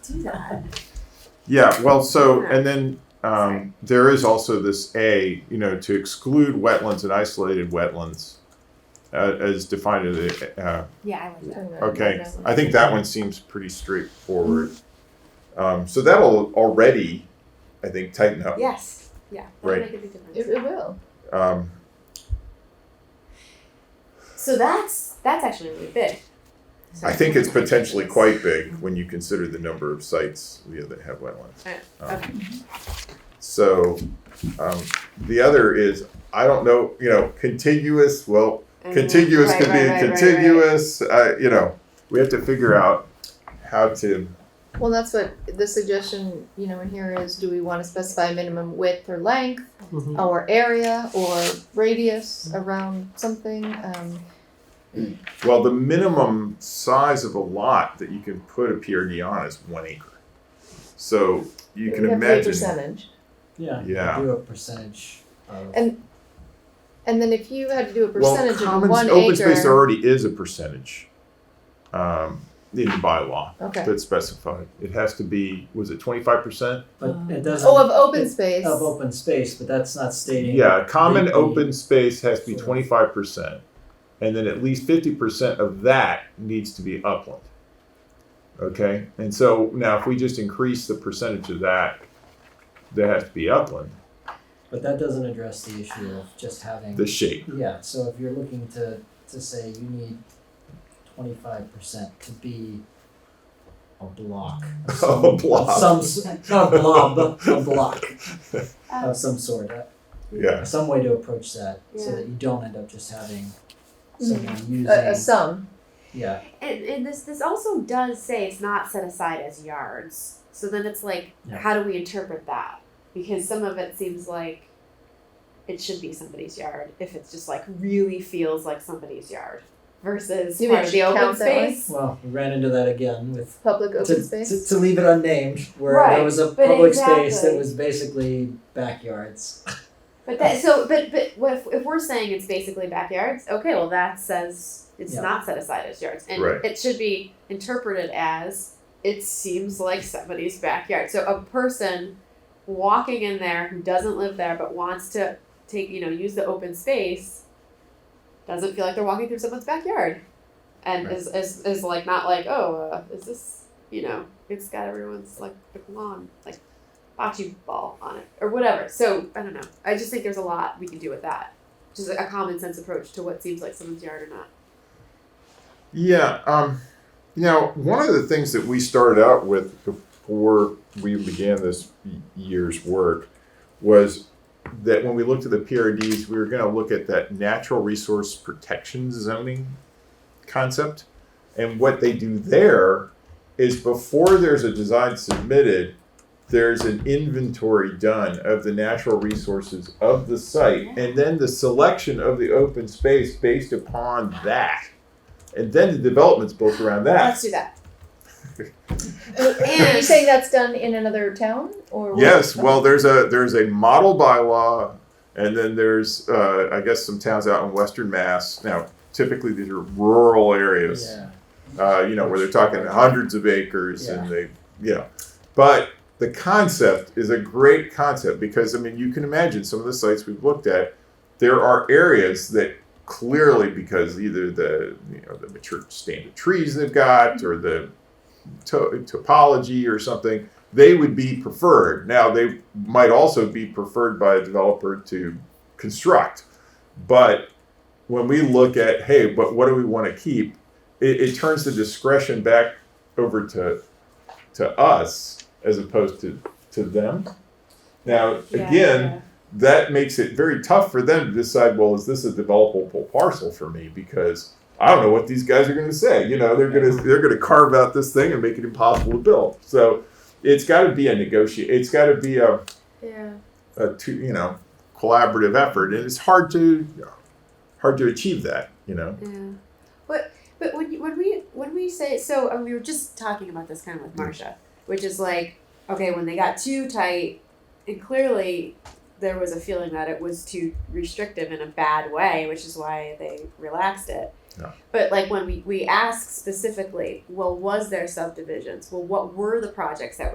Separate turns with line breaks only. do that.
Yeah, well, so, and then
Sorry.
um, there is also this A, you know, to exclude wetlands and isolated wetlands uh, as defined in the, uh,
Yeah, I like that.
okay. I think that one seems pretty straightforward. Um, so that'll already, I think, tighten up.
Yes, yeah. that'll
Right.
make a big difference.
It, it will.
Um,
So that's, that's actually really big.
I think it's potentially quite big when you consider the number of sites you know, that have wetlands.
Alright,
Um,
okay.
So, um, the other is, I don't know, you know, contiguous, well,
Mm,
contiguous
Right,
could
right,
be
right, right, right.
contiguous. Uh, you know, we have to figure out how to.
Well, that's what the suggestion, you know, in here is do we want to specify minimum width or length
Mhm.
or area or radius around something? Um,
Well, the minimum size of a lot that you can put a PRD on is one acre. So you can
we have to do a
imagine.
percentage.
Yeah.
Yeah.
Do a percentage of.
And- And then if you had to do a
Well,
percentage
commons,
of one
open
acre.
space already is a percentage um, in the bylaw
okay.
that's specified. It has to be. Was it twenty five percent?
But it doesn't.
Oh, of open space.
Of open space, but that's not stating.
Yeah, common
the-
open space has to be
Sure.
twenty five percent, and then at least fifty percent of that needs to be upland. Okay, and so now if we just increase the percentage of that, that has to be upland,
But that doesn't address the issue of just having.
the shape.
Yeah, so if you're looking to, to say you need twenty-five percent to be a block. of some-
A block.
of Some, s- not a blob, but a block
Um,
of some sort, Uh,
Yeah,
some way to approach that, so
Yeah.
that you don't end up just having
Mhm.
someone using,
a, a sum.
yeah,
And, and this this also does say it's not set aside as yards. So then it's like,
Yeah.
how do we interpret that? Because some of it seems like it should be somebody's yard if it's just like really feels like somebody's yard versus
You mean
part of
it
the
should
open
count that way?
space.
well, we ran into that again with
Public open
to,
space.
to, to leave it unnamed, where
Right,
there was a
but
public space that
exactly.
was basically backyards.
But that so but but what if, if we're saying it's basically backyards, okay, well that says it's
Yeah.
not set aside as yards, and
Right.
it should be interpreted as it seems like somebody's backyard. So a person walking in there who doesn't live there but wants to take you know use the open space doesn't feel like they're walking through someone's backyard, and
Right.
is, is is like not like oh uh, is this you know it's got everyone's like lawn like bocce ball on it or whatever. So I don't know. I just think there's a lot we can do with that. Just a common sense approach to what seems like someone's yard or not.
yeah. Um, now, one of the things that we started out with before we began this y- year's work was that when we looked at the PRDs, we were going to look at that natural resource protection zoning concept. And what they do there is before there's a design submitted, there's an inventory done of the natural resources of the site and then the selection of the open space based upon that. And then the development's built around
Let's
that.
do that.
Are you saying that's done in another town or? what?
Yes, well, there's a there's a model bylaw, and then there's uh, I guess some towns out in Western Mass. Now, typically these are rural areas.
Yeah.
uh, you know, where they're talking hundreds of acres and they, you know. But the concept is a great concept because, I mean, you can imagine some of the sites we've looked at, there are areas that clearly, because either the, you know, the mature stand of trees they've got or the to- topology or something, they would be preferred. Now, they might also be preferred by a developer to construct. But when we look at, hey, but what do we want to keep? it, it turns the discretion back over to to us as opposed to to them. Now again, that makes it very tough for them to decide. Well, is this a developable parcel for me? Because I don't know what these guys are going to say. You know, they're going to they're going to carve out this thing and make it impossible to build. So it's got to be a negotiate. It's got to be a
Yeah.
a two, you know collaborative effort, and it's hard to hard to achieve that. You know.
Yeah. But but when you, when we when we say so, and we were just talking about this kind of with Marsha, which is like okay, when they got too tight, and clearly there was a feeling that it was too restrictive in a bad way, which is why they relaxed it.
No.
But like when we, we ask specifically, well, was there subdivisions? Well, what were the projects that were